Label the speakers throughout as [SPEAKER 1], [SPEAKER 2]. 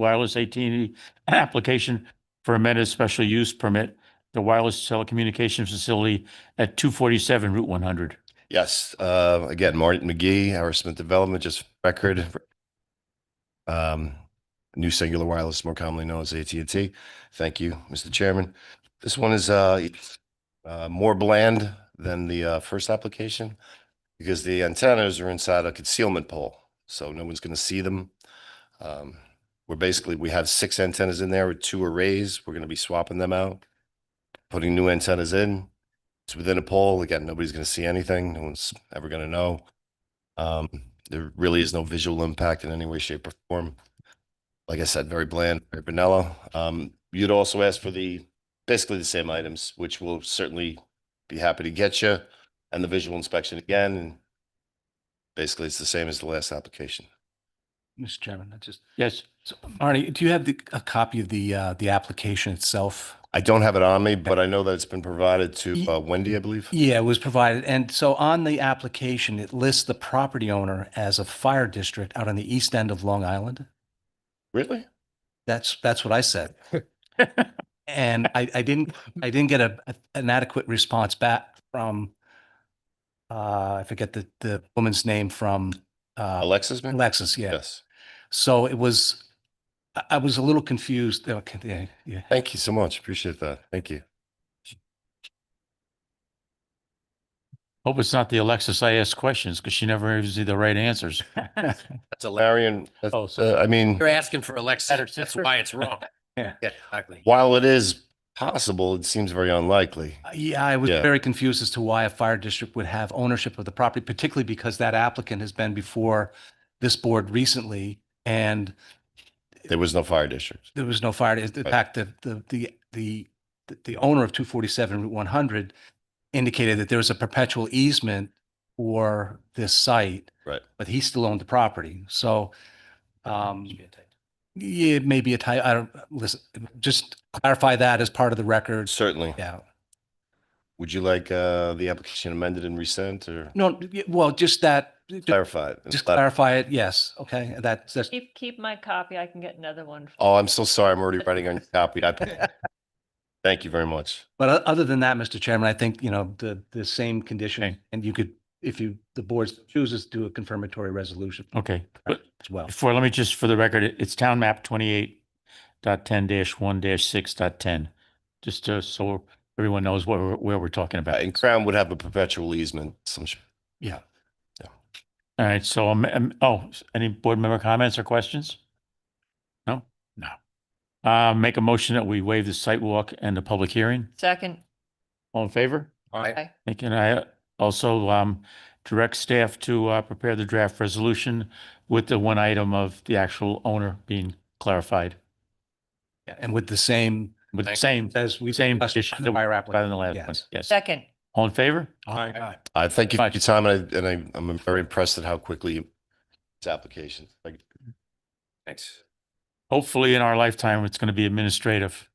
[SPEAKER 1] wireless AT&T E application for amended special use permit, the wireless telecommunications facility at two forty-seven Route one hundred.
[SPEAKER 2] Yes, uh, again, Martin McGee, Howard Smith Development, just record. Um, new singular wireless, more commonly known as AT&T. Thank you, Mr. Chairman. This one is, uh, uh, more bland than the, uh, first application because the antennas are inside a concealment pole, so no one's gonna see them. Um, we're basically, we have six antennas in there with two arrays. We're gonna be swapping them out, putting new antennas in. It's within a pole. Again, nobody's going to see anything. No one's ever going to know. Um, there really is no visual impact in any way, shape or form. Like I said, very bland, very vanilla. Um, you'd also ask for the, basically the same items, which will certainly be happy to get you. And the visual inspection again, and basically it's the same as the last application.
[SPEAKER 3] Mr. Chairman, I just,
[SPEAKER 1] Yes,
[SPEAKER 3] so, Arnie, do you have the, a copy of the, uh, the application itself?
[SPEAKER 2] I don't have it on me, but I know that it's been provided to uh, Wendy, I believe.
[SPEAKER 3] Yeah, it was provided. And so on the application, it lists the property owner as a fire district out on the east end of Long Island.
[SPEAKER 2] Really?
[SPEAKER 3] That's, that's what I said. And I, I didn't, I didn't get a, an adequate response back from, uh, I forget the, the woman's name from, uh,
[SPEAKER 2] Alexis? man?
[SPEAKER 3] Alexis, yeah.
[SPEAKER 2] Yes.
[SPEAKER 3] So it was, I, I was a little confused. Okay, yeah, yeah.
[SPEAKER 2] Thank you so much. Appreciate that. Thank you.
[SPEAKER 1] hope it's not the Alexis I asked questions because she never gives you the right answers.
[SPEAKER 2] That's a Larian. that's,
[SPEAKER 1] Oh, so-
[SPEAKER 2] uh, I mean.
[SPEAKER 4] You're asking for Alexa.
[SPEAKER 1] Better
[SPEAKER 4] That's
[SPEAKER 1] sister.
[SPEAKER 4] why it's wrong.
[SPEAKER 3] Yeah.
[SPEAKER 4] exactly.
[SPEAKER 2] While it is possible, it seems very unlikely.
[SPEAKER 3] Yeah, I was
[SPEAKER 2] Yeah.
[SPEAKER 3] very confused as to why a fire district would have ownership of the property, particularly because that applicant has been before this board recently and
[SPEAKER 2] There was no fire district.
[SPEAKER 3] there was no fire. In
[SPEAKER 2] Right.
[SPEAKER 3] fact, the, the, the, the, the owner of two forty-seven Route one hundred indicated that there was a perpetual easement for this site.
[SPEAKER 2] Right.
[SPEAKER 3] But he still owned the property. So, um, yeah, it may be a type, I don't, listen, just clarify that as part of the record.
[SPEAKER 2] Certainly.
[SPEAKER 3] Yeah.
[SPEAKER 2] Would you like uh, the application amended and resent or
[SPEAKER 3] No, y- well, just that,
[SPEAKER 2] clarified?
[SPEAKER 3] Mm, Just clarify it, yes, okay, that, that's,
[SPEAKER 5] Keep, keep my copy. I can get another one.
[SPEAKER 2] Oh, I'm so sorry. I'm already writing on your copy. I- Thank you very much.
[SPEAKER 3] but o- other than that, Mr. Chairman, I think, you know, the, the same condition,
[SPEAKER 1] Okay.
[SPEAKER 3] and you could, if you, the board chooses to do a confirmatory resolution
[SPEAKER 1] Okay, but
[SPEAKER 3] as well.
[SPEAKER 1] before, let me just, for the record, it- it's town map twenty-eight dot ten dash one dash six dot ten. Just uh, so everyone knows what we're, where we're talking
[SPEAKER 2] Uh,
[SPEAKER 1] about.
[SPEAKER 2] And Crown would have a perpetual easement. some sh-
[SPEAKER 1] All right, so, um, um, oh, s- any board member comments or questions? No, no. Uh, make a motion that we waive the site walk and the public hearing.
[SPEAKER 5] Second,
[SPEAKER 1] All in favor?
[SPEAKER 4] All right.
[SPEAKER 1] And can I also, um, direct staff to, uh, prepare the draft resolution with the one item of the actual owner being clarified
[SPEAKER 3] Yeah, And with the same,
[SPEAKER 1] with the
[SPEAKER 4] Thank-
[SPEAKER 1] same,
[SPEAKER 3] as we.
[SPEAKER 1] same
[SPEAKER 3] discussed
[SPEAKER 1] condition
[SPEAKER 3] on
[SPEAKER 1] that
[SPEAKER 3] the
[SPEAKER 1] we
[SPEAKER 3] prior
[SPEAKER 1] rather than
[SPEAKER 3] application.
[SPEAKER 1] the last one.
[SPEAKER 3] Yes.
[SPEAKER 1] Yes.
[SPEAKER 5] second,
[SPEAKER 1] All in favor?
[SPEAKER 3] Aye.
[SPEAKER 2] I thank you for
[SPEAKER 1] Much.
[SPEAKER 2] your time and I, and I, I'm very impressed at how quickly this application. like,
[SPEAKER 4] Thanks.
[SPEAKER 1] Hopefully in our lifetime, it's going to be administrative.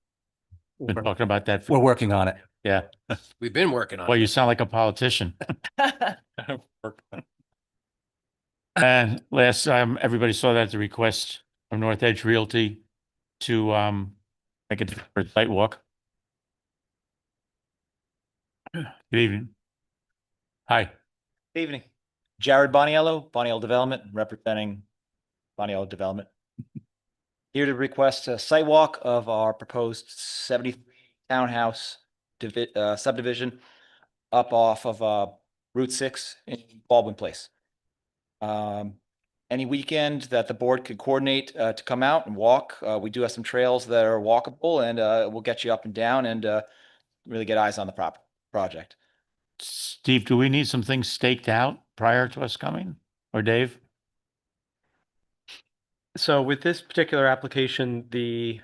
[SPEAKER 1] Been
[SPEAKER 3] We're
[SPEAKER 1] talking about that.
[SPEAKER 3] we're
[SPEAKER 1] for-
[SPEAKER 3] working on it.
[SPEAKER 1] Yeah.
[SPEAKER 4] We've been working on
[SPEAKER 1] Well,
[SPEAKER 4] it.
[SPEAKER 1] you sound like a politician. And last time, everybody saw that, the request from North Edge Realty to um, make a deferred site walk. Good evening. Hi,
[SPEAKER 6] Good Evening. Jared Boniello, Boniello Development, representing Boniello Development. Here to request a site walk of our proposed seventy-three townhouse divi- uh, subdivision up off of uh, Route Six in Baldwin Place. Um, Any weekend that the board could coordinate uh, to come out and walk, uh, we do have some trails that are walkable and uh, we'll get you up and down and uh, really get eyes on the prop, project.
[SPEAKER 1] Steve, do we need some things staked out prior to us coming or Dave?
[SPEAKER 7] So with this particular application, the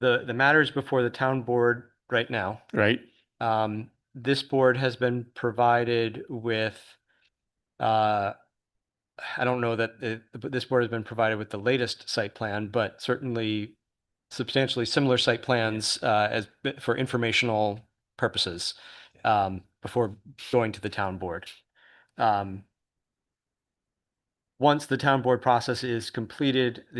[SPEAKER 7] the the matter is before the town board right now.
[SPEAKER 1] Right?
[SPEAKER 7] Um, this board has been provided with uh, I don't know that it, but this board has been provided with the latest site plan, but certainly substantially similar site plans uh, as for informational purposes um, before going to the town board. Um, once the town board process is completed,